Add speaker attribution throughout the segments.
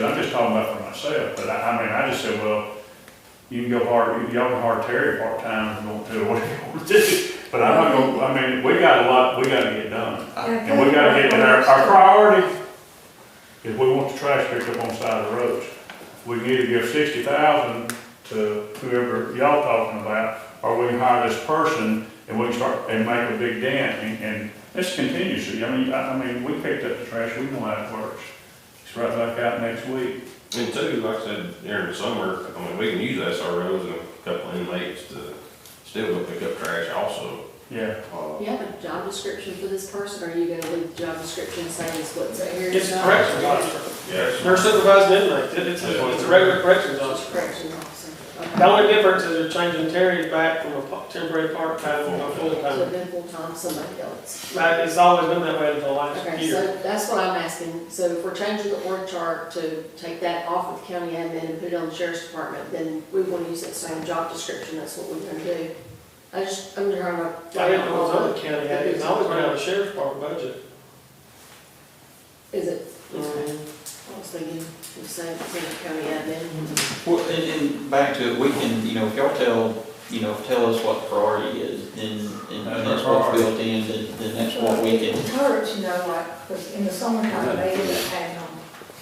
Speaker 1: just talking about for myself, but I, I mean, I just said, well, you can go hard, y'all can hard Terry part-time if you want to, or whatever you want to do. But I'm not gonna, I mean, we got a lot, we gotta get done. Uh, And we gotta get, and our, our priority is we want the trash picked up on the side of the roads. We can either give sixty thousand to whoever y'all talking about, or we can hire this person and we can start, and make a big dent, and, and this continues, I mean, I, I mean, we picked up the trash, we know how it works. It's right back out next week.
Speaker 2: And two, like I said, during the summer, I mean, we can use SROs and a couple inmates to still go pick up trash also.
Speaker 1: Yeah,
Speaker 2: Uh,
Speaker 3: You have a job description for this person, or are you gonna leave the job description saying it's what's here?
Speaker 4: It's a corrections officer.
Speaker 2: Yes.
Speaker 4: They're supervising inmates. It- It's, it's a regular corrections
Speaker 3: Just
Speaker 4: officer.
Speaker 3: corrections officer. okay.
Speaker 4: The only difference is they're changing Terry back from a pa- temporary part-time to a
Speaker 3: So
Speaker 4: full-time.
Speaker 3: then full-time, somebody else.
Speaker 4: Like, it's always been that way for the last
Speaker 3: Okay,
Speaker 4: year.
Speaker 3: so that's what I'm asking. So if we're changing the org chart to take that off of the county admin and put it on the sheriff's department, then we wanna use that same job description, that's what we're gonna do. I just, I'm trying to.
Speaker 4: I didn't know it was on the county, I didn't always been on the sheriff's department budget.
Speaker 3: Is it?
Speaker 4: Mhm.
Speaker 3: I was thinking, you said, county
Speaker 4: Mm-hmm.
Speaker 3: admin.
Speaker 5: Well, and, and back to it, we can, you know, if y'all tell, you know, tell us what the priority is, then, and
Speaker 1: That's
Speaker 5: and that's
Speaker 1: our
Speaker 5: what's built in, then, then that's what we can.
Speaker 6: Encourage, you know, like, 'cause in the summertime, they would have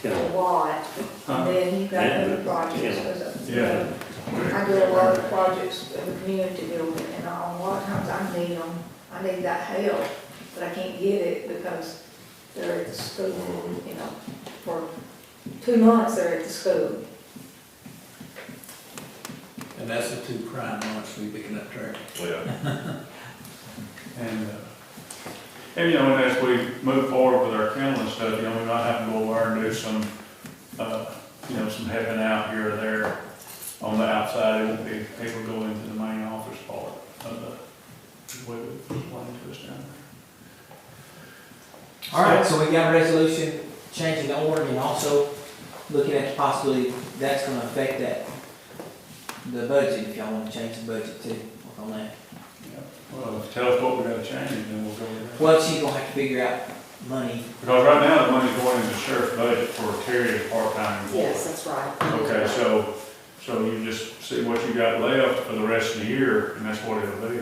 Speaker 6: them a lot, and then you got other projects, 'cause, uh, you
Speaker 1: Yeah.
Speaker 6: know, I do a lot of projects in the community building, and a lot of times I need them, I need that help, but I can't get it because they're at the school, you know, for two months they're at the school.
Speaker 7: And that's the two prime ones we picking up trash.
Speaker 2: Yeah.
Speaker 1: and, uh, and you know, and as we move forward with our kennel and stuff, you know, we might have to go over and do some, uh, you know, some heaven out here or there on the outside, it won't be, people go into the main office part of the, way we explained to us down there.
Speaker 8: All right, so we got a resolution changing the order and also looking at the possibility that's gonna affect that, the budget, if y'all wanna change the budget too, work on that.
Speaker 1: Well, tell us what we gotta change, and then we'll go with that.
Speaker 8: Well, she's gonna have to figure out money.
Speaker 1: Because right now, the money's going into sheriff's budget for Terry as part-time employee.
Speaker 3: Yes, that's right.
Speaker 1: Okay, so, so you just see what you got left for the rest of the year, and that's what it'll be,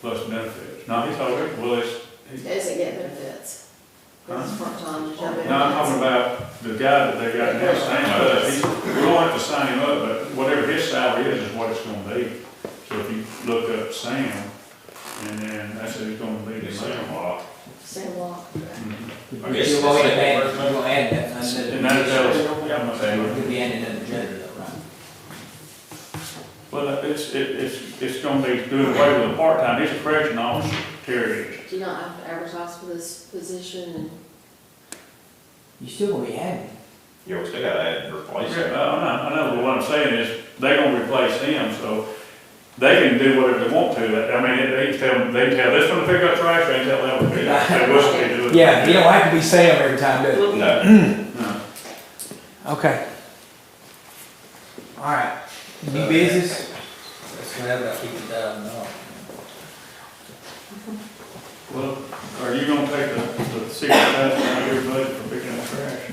Speaker 1: plus benefits. Now, he's talking, well, it's,
Speaker 3: Doesn't get benefits. It's part-time, there's no
Speaker 1: now I'm talking
Speaker 3: benefits.
Speaker 1: about the guy that they got now, same stuff. He's- We don't have to sign him up, but whatever his salary is, is what it's gonna be. So if you look up Sam, and then that's who's gonna be the
Speaker 2: It's like a
Speaker 1: Sam.
Speaker 2: lot.
Speaker 3: Same law.
Speaker 1: Mhm.
Speaker 8: You're
Speaker 2: I guess
Speaker 8: gonna add,
Speaker 2: it's-
Speaker 8: you're gonna add that, another.
Speaker 1: And that tells, yeah, I'm gonna say,
Speaker 8: You'll be adding another judge though, right?
Speaker 1: well, it's, it- it's, it's gonna be doing away with the part-time, he's a correction officer, Terry is.
Speaker 3: Do you not have to advertise for this position and
Speaker 8: You still gonna be adding.
Speaker 2: Yeah, we still gotta add replace
Speaker 1: Yeah,
Speaker 2: it.
Speaker 1: I I know, I know, but what I'm saying is, they're gonna replace him, so they can do whatever they want to, I mean, they can tell, they can tell this one to pick up trash, they can tell that one to pick up, they wish they do it.
Speaker 8: Yeah, you don't have to be Sam every time, do you?
Speaker 2: No.
Speaker 1: No.
Speaker 8: Okay. All right, new business?
Speaker 7: That's gonna have about fifty thousand dollars.
Speaker 1: Well, are you gonna take the, the six thousand out of your budget for picking up trash?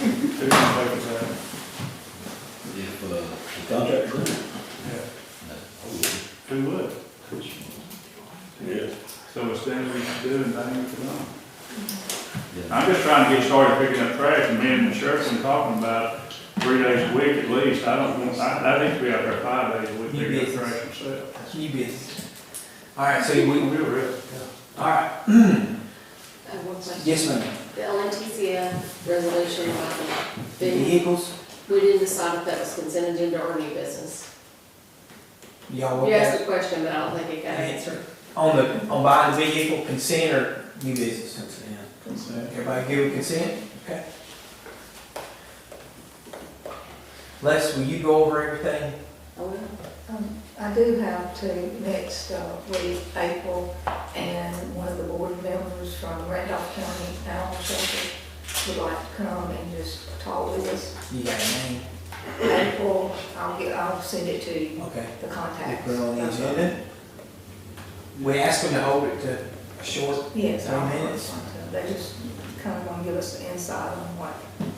Speaker 1: Who's gonna pay for that?
Speaker 9: If, uh, the contract ran,
Speaker 1: Yeah.
Speaker 9: I would.
Speaker 1: Who would? So it's things we can do and things we can
Speaker 9: Yeah.
Speaker 1: I'm just trying to get started picking up trash, and me and the sheriff's been talking about three days a week at least, I don't want, I, I think we out there five days a week
Speaker 8: You
Speaker 1: picking up
Speaker 8: busy.
Speaker 1: trash ourselves.
Speaker 8: New business. All right, so we,
Speaker 1: We're real.
Speaker 8: all right,
Speaker 3: I have one question?
Speaker 8: yes, ma'am.
Speaker 3: The LNTCF resolution about the fee,
Speaker 8: Vehicles,
Speaker 3: we didn't decide if that was consent agenda or new business.
Speaker 8: y'all want
Speaker 3: You
Speaker 8: that?
Speaker 3: asked a question, but I don't think it got answered.
Speaker 8: On the, on buying vehicle, consent or new business? Consent. Everybody give with consent? Okay. Les, will you go over everything?
Speaker 3: Oh, well.
Speaker 6: Um, I do have to next uh, week, April, and one of the board members from Randolph County Animal Shelter would like to come and just talk with us.
Speaker 8: You got a name?
Speaker 6: April, I'll get, I'll send it to you,
Speaker 8: Okay.
Speaker 6: the
Speaker 8: We
Speaker 6: contacts.
Speaker 8: put it on the agenda. We asked them to hold it to a short,
Speaker 6: Yes. I'll-
Speaker 8: Ten minutes.
Speaker 6: They just kind of want to give us the insight on what